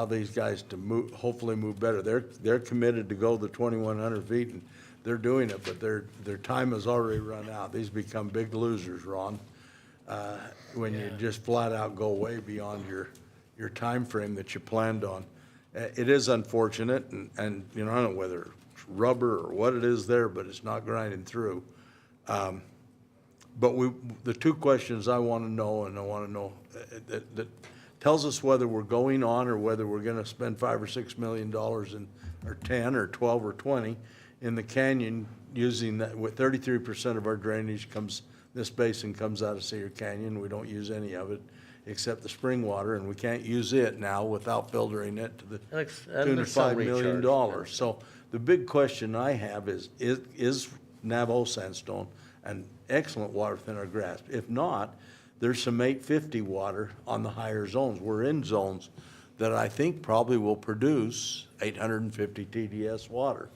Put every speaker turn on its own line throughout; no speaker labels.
allow these guys to move, hopefully move better. They're, they're committed to go the twenty-one hundred feet, and they're doing it, but their, their time has already run out. These become big losers, Ron, uh, when you just flat out go way beyond your, your frame that you planned on. Uh, It is unfortunate, and, and, you know, I don't know whether it's rubber or what it is there, but it's not grinding through. But we, the two questions I want to know, and I want to know, uh, that, that tells us whether we're going on or whether we're going to spend five or six million dollars in, or ten, or twelve, or twenty in the canyon using that, with thirty-three percent of our drainage comes, this basin comes out of Cedar Canyon. We don't use any of it except the spring water, and we can't use it now without filtering it to the
Alex, I'm
tune
gonna
of
sell
five million
recharge.
dollars. So the big question I have is, is, is Navajo sandstone an excellent water within our grasp? If not, there's some eight fifty water on the higher zones. We're in zones that I think probably will produce eight hundred and fifty TDS water.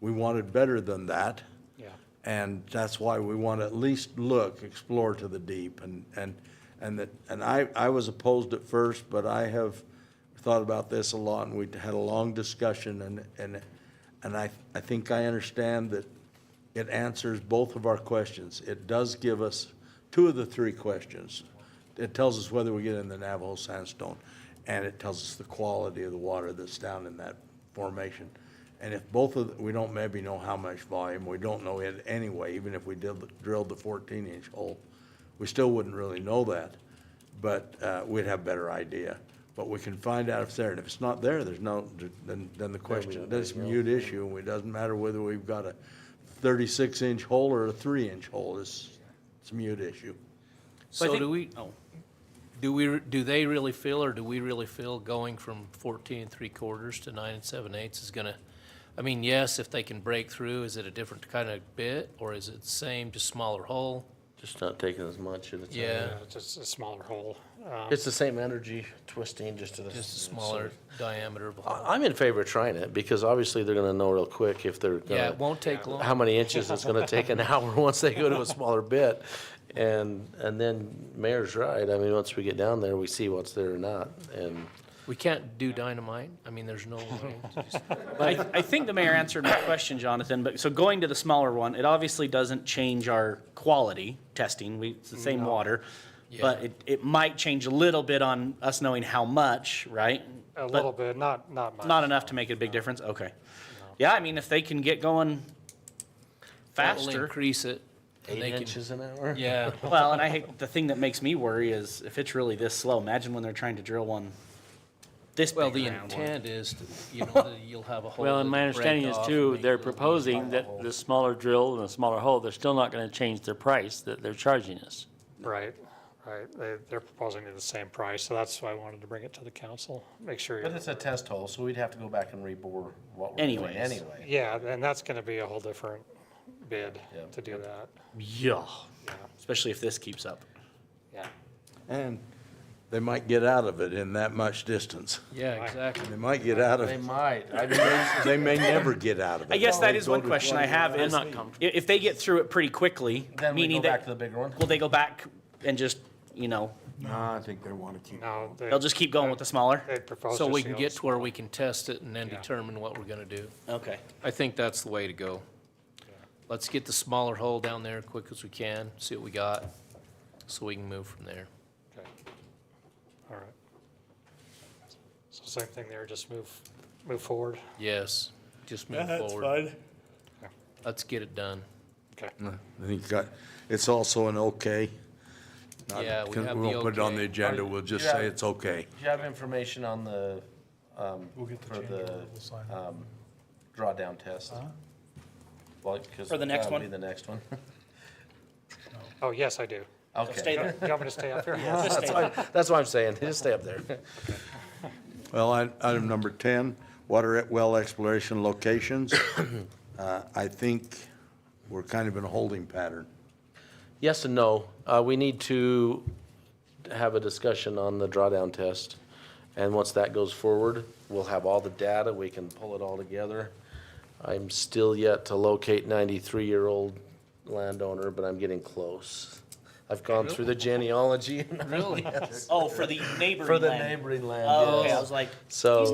We wanted better than that.
Yeah.
And that's why we want to at least look, explore to the deep and, and, and that, and I, I was opposed at first, but I have thought about this a lot and we had a long discussion and, and, and I, I think I understand that it answers both of our questions. It does give us two of the three questions. It tells us whether we get in the Navajo sandstone and it tells us the quality of the water that's down in that formation. And if both of, the- we don't maybe know how much volume, we don't know it anyway, even if we did, drilled the fourteen inch hole, we still wouldn't really know that, but, uh, we'd have better idea. But we can find out if it's there, and if it's not there, there's no, then, then the question, that's a mute issue, and it doesn't matter whether we've got a thirty-six inch hole or a three inch hole, it's, it's a mute issue.
But I
So
think-
do we, do we, do they really feel, or do we really feel going from fourteen and three quarters to nine and seven eighths is gonna, I mean, yes, if they can break through, is it a different kind of bit, or is it the same, just smaller hole?
Just not taking as much at a time.
Yeah,
Yeah, it's just a smaller hole. Um,
It's the same energy twisting, just at a. Uh,
just a smaller diameter of a hole.
I- I'm in favor of trying it because obviously they're gonna know real quick if they're gonna.
Yeah, it won't take long.
How many inches it's gonna take an hour once they go to a smaller bit. And, and then Mayor's right. I mean, once we get down there, we see what's there or not. And
We can't do dynamite, I mean, there's no way.
I, I think the mayor answered my question, Jonathan, but, so going to the smaller one, it obviously doesn't change our quality testing, we, it's the same water. But
Yeah.
it, it might change a little bit on us knowing how much, right?
a
But
little bit, not, not much.
Not enough to make a big difference, okay. Yeah, I mean, if they can get going
That'll
faster,
Increase it. and
eight
they can-
inches an hour?
Yeah,
well, and I, hate- the thing that makes me worry is if it's really this slow, imagine when they're trying to drill one this big
well, the
round.
intent is, to, you know, that you'll have a hole.
Well, and
that'll
my
break
understanding is
off and
too,
make
they're
little mini
proposing
holes.
that the smaller drill and the smaller hole, they're still not gonna change their price that they're charging us.
Right, right. They, they're proposing it the same price, so that's why I wanted to bring it to the council, make sure.
But
you're-
it's a test hole, so we'd have to go back and rebore what we're doing
Anyways.
anyway.
Yeah, and that's gonna be a whole different bid
Yeah.
to do that.
Yeah. Especially if this keeps up.
Yeah.
And they might get out of it in that much distance.
Yeah, exactly.
They might get out of,
They
it.
might. I mean,
they may never get out of it.
I guess that
They
is
go
one
to
question I have is,
not
i-
comfortable.
if they get through it pretty quickly,
then we go
meaning
back
that,
to the bigger one.
will they go back and just, you know,
No, I think they want to keep.
No, they,
they'll just keep going with the smaller?
they propose.
So we
just
can
the
get
old-
to where we can test it and then determine what we're gonna do.
Okay.
I think that's the way to go. Let's get the smaller hole down there quick as we can, see what we got, so we can move from there.
okay. All right. So same thing there, just move, move forward.
Yes, just move forward. Let's get it done.
Okay.
I think that- it's also an okay. Not-
Yeah, we
can-
have the
won't put it on the
okay.
agenda, we'll just
Yeah.
say it's okay.
Do you have information on the, um, for the, um, drawdown test? Well, 'cause
For the next
that'll
one?
Be the next one.
Oh, yes, I do.
Okay.
Stay
You
there.
want me to stay up here?
That's what- that's what I'm saying. Just stay up there.
Well, I- item number 10, water at well exploration locations. Uh, I think we're kind of in a holding pattern.
Yes and no. Uh, we need to have a discussion on the drawdown test. And once that goes forward, we'll have all the data, we can pull it all together. I'm still yet to locate ninety-three-year-old landowner, but I'm getting close. I've gone through the genealogy
Really?
Oh, for the neighboring
for the
land.
neighboring land.
Oh,
yes.
okay, I was like,
So-
he's